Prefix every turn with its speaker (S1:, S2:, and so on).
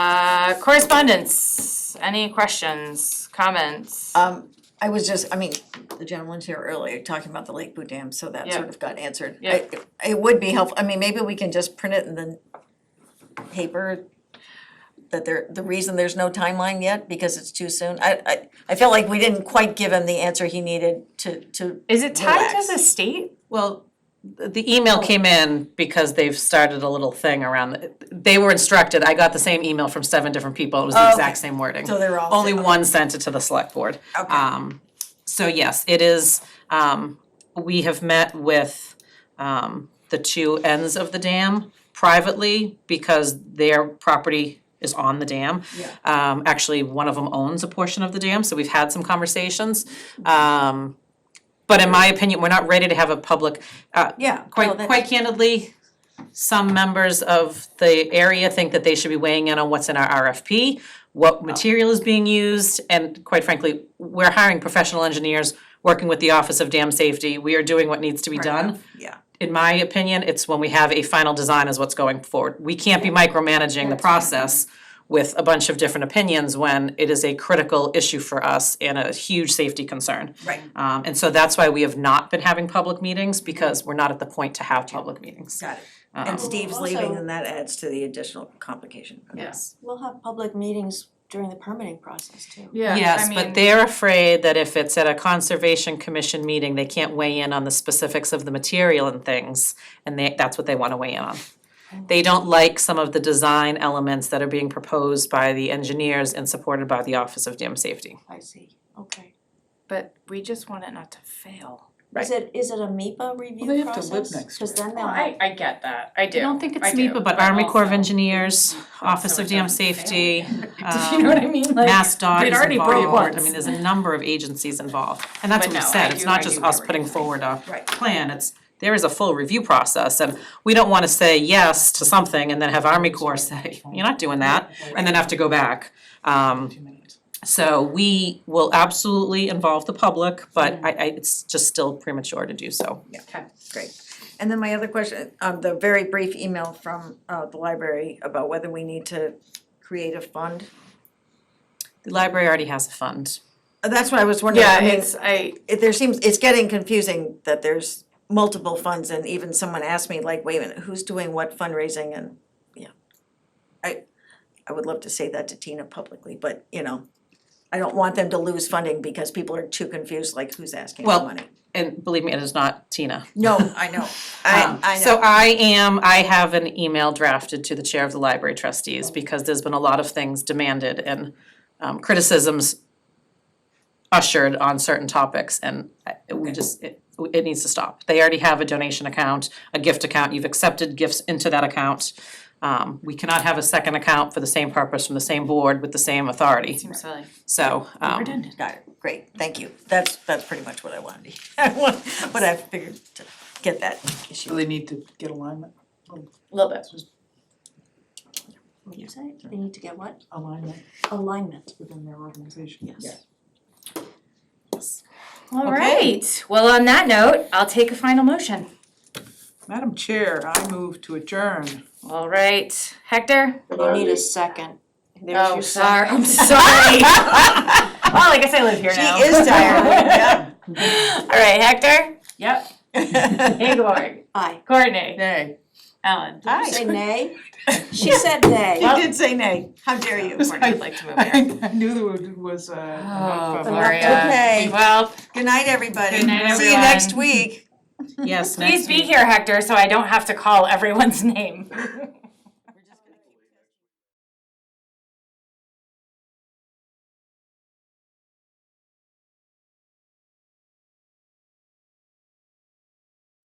S1: Uh, correspondence, any questions, comments?
S2: Um, I was just, I mean, the gentleman's here earlier talking about the Lake Boo Dam, so that sort
S1: Yeah.
S2: of got answered.
S1: Yeah.
S2: It- It would be helpful, I mean, maybe we can just print it in the paper that there, the reason there's no timeline yet, because it's too soon. I, I, I felt like we didn't quite give him the answer he needed to, to.
S1: Is it tied
S2: relax.
S1: to the state?
S3: Well, th- the email
S2: Oh.
S3: came in because they've started a little thing around, the- they were instructed, I got the same email from seven different people, it was the exact same wording.
S2: Oh, So they're all-
S3: Only
S2: okay. Oh.
S3: one sent it to the select board.
S2: Okay.
S3: Um, so yes, it is, um, we have met with, um, the two ends of the dam privately because their property is on the dam.
S2: Yeah.
S3: Um, actually, one of them owns a portion of the dam, so we've had some conversations. Um, but in my opinion, we're not ready to have a public, uh,
S2: Yeah.
S3: quite, quite candidly, some members of the area think that they should be weighing in on what's in our RFP, what material is being used, and quite frankly, we're hiring professional engineers, working with the Office of Dam Safety, we are doing what needs to be done.
S2: Yeah.
S3: In my opinion, it's when we have a final design is what's going forward. We can't be micromanaging the process with a bunch of different opinions when it is a critical issue for us and a huge safety concern.
S2: Right.
S3: Um, and so that's why we have not been having public meetings, because we're not at the point to have public meetings.
S2: Got it. And Steve's
S4: also-
S2: leaving, and that adds to the additional complication. Okay.
S3: Yes.
S4: We'll have public meetings during the permitting process too.
S1: Yeah,
S3: Yes, but they're afraid that if it's at a conservation commission meeting, they can't weigh in on the specifics of the material and things, and they, that's what they wanna weigh in on. They don't like some of the design elements that are being proposed by the engineers and supported by the Office of Dam Safety.
S4: I see, okay.
S1: But we just want it not to fail.
S4: Is it, is it a MEPA review process?
S5: they have to live next
S4: Cause then
S1: Well,
S4: they'll
S1: Oh, I,
S4: have,
S1: I get that, I do,
S3: I don't think it's
S1: I do,
S3: MEPA, but Army Corps of
S1: also-
S3: Engineers, Office
S1: so
S3: of
S1: it
S3: Dam
S1: doesn't fail
S3: Safety, um,
S1: Do you know what I mean? Like,
S3: Mass Dog
S1: they'd
S3: is
S1: already broke
S3: involved, I
S1: once.
S3: mean, there's a number of agencies involved, and that's
S1: But
S3: what we
S1: no, I
S3: said, it's
S1: do- I
S3: not
S1: do
S3: just
S1: know
S3: us
S1: what
S3: putting
S1: you're saying.
S3: forward a
S2: Right.
S3: plan, it's, there is a full review process, and we don't wanna say yes to something and then have Army Corps say, you're not doing that, and then have to go back. Um, so we will absolutely involve the public, but
S1: Mm-hmm.
S3: I, I, it's just still premature to do so.
S2: Great. And then my other question, um, the very brief email from, uh, the library about whether we need to create a fund.
S3: The library already has a fund.
S2: Uh, That's what I was wondering,
S1: Yeah,
S2: I mean,
S1: it's, I,
S2: it, there seems, it's getting confusing that there's multiple funds and even someone asked me, like, wait a minute, who's doing what fundraising and, yeah. I, I would love to say that to Tina publicly, but, you know, I don't want them to lose funding because people are too confused, like, who's asking for
S3: Well,
S2: money?
S3: And believe me, it is not Tina.
S2: No, I know, I,
S3: Um,
S2: I know.
S3: So I am, I have an email drafted to the chair of the library trustees because there's been a lot of things demanded and um, criticisms ushered on certain topics and I- we just, it, it needs to stop. They already have a donation account, a gift account, you've accepted gifts into that account. Um, we cannot have a second account for the same purpose from the same board with the same authority,
S1: seems silly.
S3: so, um,
S1: Redundant.
S2: Got it, great, thank you. That's, that's pretty much what I wanted. I want- But I figured to get that
S5: Do
S2: issue.
S5: they need to get alignment,
S1: Little bit.
S4: what do you say? They need to get what?
S5: alignment
S4: Alignment.
S5: within their organization?
S4: Yes.
S1: All right, well, on that note, I'll take a final motion.
S5: Madam Chair, I move to adjourn.
S1: All right, Hector?
S4: You need a second. There's
S1: Oh,
S4: your
S1: sorry,
S4: second.
S1: I'm sorry. Well, I guess I live here
S2: She
S1: now.
S2: is tired,
S1: All right, Hector? Yep.
S2: yeah.
S1: Ingeborg?
S4: Aye.
S1: Courtney?
S5: Nay.
S1: Ellen?
S4: Did you say nay? She said nay.
S2: She did say nay, how dare you?
S1: Courtney would like to move here.
S5: I I knew there was- was uh,
S1: Oh,
S5: a.
S1: Gloria.
S2: Okay.
S1: Well,
S2: Good night, everybody.
S1: Good night,
S2: See you next
S1: everyone.
S2: week.
S3: yes, next
S1: please be
S3: week.
S1: here, Hector, so I don't have to call everyone's name.